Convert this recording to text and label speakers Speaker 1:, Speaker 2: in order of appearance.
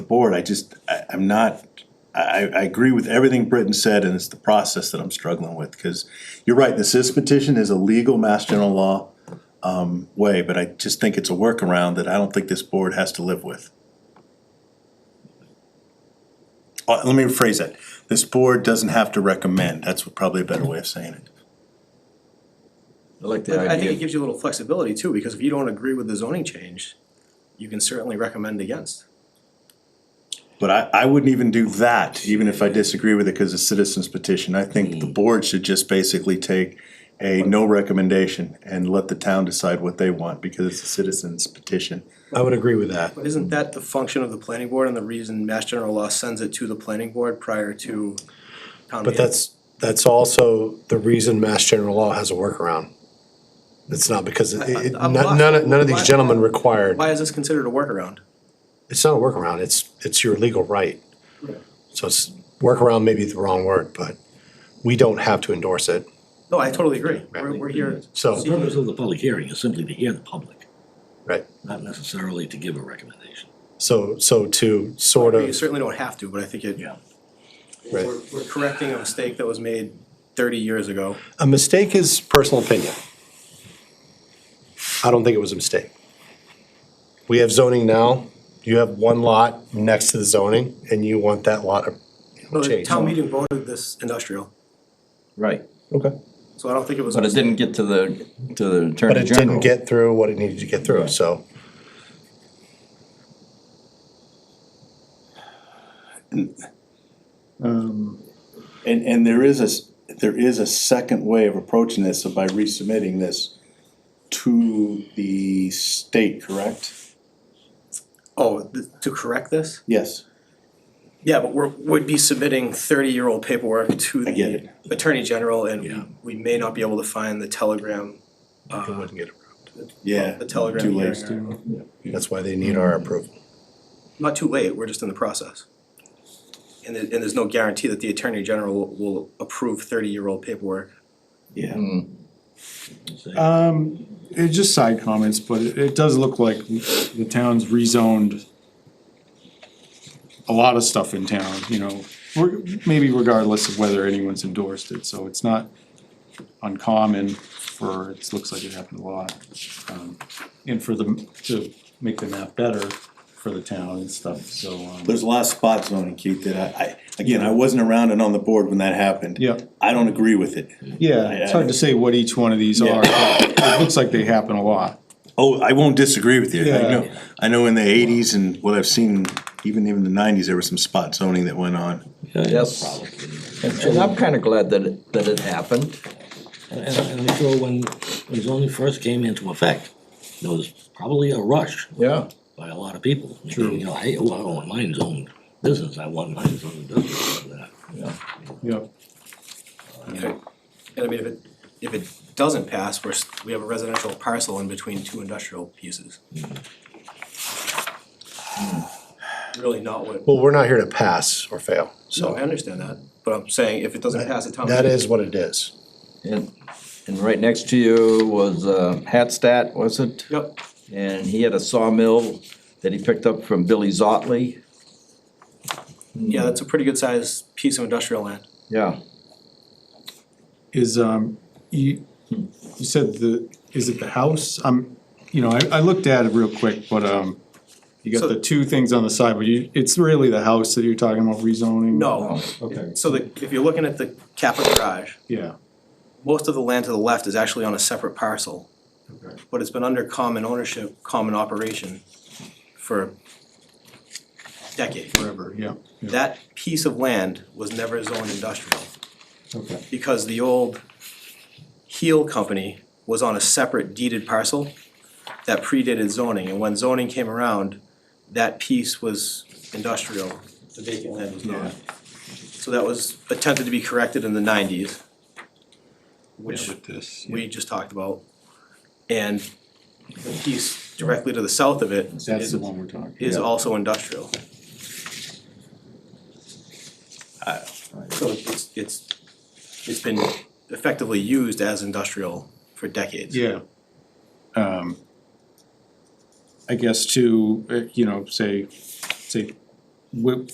Speaker 1: the board, I just, I, I'm not, I, I agree with everything Britton said, and it's the process that I'm struggling with, cause you're right, the CIS petition is a legal mass general law um, way, but I just think it's a workaround that I don't think this board has to live with. Uh, let me rephrase that, this board doesn't have to recommend, that's probably a better way of saying it.
Speaker 2: I like the
Speaker 3: But I think it
Speaker 2: idea,
Speaker 3: gives you a little flexibility too, because if you don't agree with the zoning change, you can certainly recommend against.
Speaker 1: But I, I wouldn't even do that, even if I disagree with it, cause it's citizens petition, I think the board should just basically take a no recommendation and let the town decide what they want, because it's a citizens petition.
Speaker 4: I would agree with that.
Speaker 3: But isn't that the function of the planning board and the reason Mass General Law sends it to the planning board prior to town
Speaker 4: But
Speaker 3: meeting?
Speaker 4: that's, that's also the reason Mass General Law has a workaround. It's not because, it- it-
Speaker 3: I- I'm
Speaker 4: none,
Speaker 3: not-
Speaker 4: none of- none of these
Speaker 3: why-
Speaker 4: gentlemen required,
Speaker 3: Why is this considered a workaround?
Speaker 4: it's not a workaround, it's, it's your legal right. So it's, workaround may be the wrong word, but we don't have to endorse it.
Speaker 3: No, I totally agree. We're, we're here.
Speaker 4: So-
Speaker 2: the purpose of the public hearing is simply to hear the public,
Speaker 4: Right.
Speaker 2: not necessarily to give a recommendation.
Speaker 4: So, so to sort
Speaker 3: You
Speaker 4: of,
Speaker 3: certainly don't have to, but I think it,
Speaker 2: Yeah.
Speaker 4: Right.
Speaker 3: we're, we're correcting a mistake that was made thirty years ago.
Speaker 4: a mistake is personal opinion. I don't think it was a mistake. We have zoning now, you have one lot next to the zoning, and you want that lot you know,
Speaker 3: No, the
Speaker 4: changed.
Speaker 3: town meeting voted this industrial,
Speaker 5: Right,
Speaker 4: Okay.
Speaker 3: so I don't think it was.
Speaker 5: but it didn't get to the, to the
Speaker 4: But
Speaker 5: Attorney
Speaker 4: it didn't
Speaker 5: General.
Speaker 4: get through what it needed to get through, so.
Speaker 1: And, and there is a, s- there is a second way of approaching this, so by resubmitting this to the state, correct?
Speaker 3: Oh, th- to correct this?
Speaker 1: Yes,
Speaker 3: Yeah, but we're, would be submitting thirty-year-old paperwork to
Speaker 1: I get
Speaker 3: the
Speaker 1: it.
Speaker 3: Attorney General
Speaker 2: Yeah.
Speaker 3: and we may not be able to find the telegram,
Speaker 4: It wouldn't get approved.
Speaker 1: yeah.
Speaker 3: the telegram
Speaker 1: Oh, Too late.
Speaker 3: hearing or-
Speaker 4: That's why they need our approval.
Speaker 3: Not too late, we're just in the process. And there, and there's no guarantee that the Attorney General will- will approve thirty-year-old paperwork.
Speaker 1: Yeah.
Speaker 2: Uh,
Speaker 6: Um, it's just side comments, but it, it does look like the town's rezoned a lot of stuff in town, you know, reg- maybe regardless of whether anyone's endorsed it, so it's not uncommon for, it looks like it happened a lot. Um, And for the, to make the map better for the town and stuff, so, um,
Speaker 1: There's a lot of spot zoning, Keith, that I, I, again, I wasn't around and on the board when that happened.
Speaker 6: Yeah.
Speaker 1: I don't agree with it.
Speaker 6: yeah, it's hard to say what each one of these are, but it looks like they happen a lot.
Speaker 1: Oh, I won't disagree with you, I
Speaker 6: Yeah.
Speaker 1: know, I know in the eighties and what I've seen, even in the nineties, there was some spot zoning that went on.
Speaker 5: Yes, and and I'm kinda glad that, it- that it happened.
Speaker 2: And, and I'm sure when, when zoning first came into effect, there was probably a rush
Speaker 5: Yeah.
Speaker 2: by a lot of people. True. You know, hey, oh, I don't want mine zoned business, I want mine zoned business.
Speaker 6: Yep.
Speaker 3: And I mean, if it, if it doesn't pass, we're, s- we have a residential parcel in between two industrial pieces.
Speaker 1: Hmm.
Speaker 3: Really not what,
Speaker 4: Well, we're not here to pass or fail,
Speaker 3: so I
Speaker 4: so
Speaker 3: understand that, but I'm saying if it doesn't pass the town.
Speaker 4: that is what it is.
Speaker 5: And, and right next to you was, uh, Hatstat, was it?
Speaker 3: Yep.
Speaker 5: And he had a sawmill that he picked up from Billy Zotley,
Speaker 3: Yeah, that's a pretty good sized piece of industrial land.
Speaker 5: yeah.
Speaker 6: is, um, you, you said the, is it the house? Um, you know, I, I looked at it real quick, but, um, you
Speaker 3: So-
Speaker 6: got the two things on the side, but you, it's really the house that you're talking about rezoning?
Speaker 3: No,
Speaker 6: Okay,
Speaker 3: so the, if you're looking at the Kappa garage,
Speaker 6: yeah,
Speaker 3: most of the land to the left is actually on a separate parcel.
Speaker 6: Okay.
Speaker 3: But it's been under common ownership, common operation for decades.
Speaker 6: whatever, yeah, yeah,
Speaker 3: That piece of land was never zoned industrial
Speaker 6: okay,
Speaker 3: because the old Heel Company was on a separate deeded parcel that predated zoning. And when zoning came around, that piece was industrial, the vacant land was
Speaker 6: yeah.
Speaker 3: not. So that was attempted to be corrected in the nineties,
Speaker 6: Yeah,
Speaker 3: which
Speaker 6: with this, yeah.
Speaker 3: we just talked about. And the piece directly to the south of it
Speaker 6: That's
Speaker 3: is,
Speaker 6: the one we're talking.
Speaker 3: is
Speaker 6: yeah.
Speaker 3: also industrial. Uh, So it's, it's, it's been effectively used as industrial for decades.
Speaker 6: Yeah. Um, I guess to, uh, you know, say, say wh-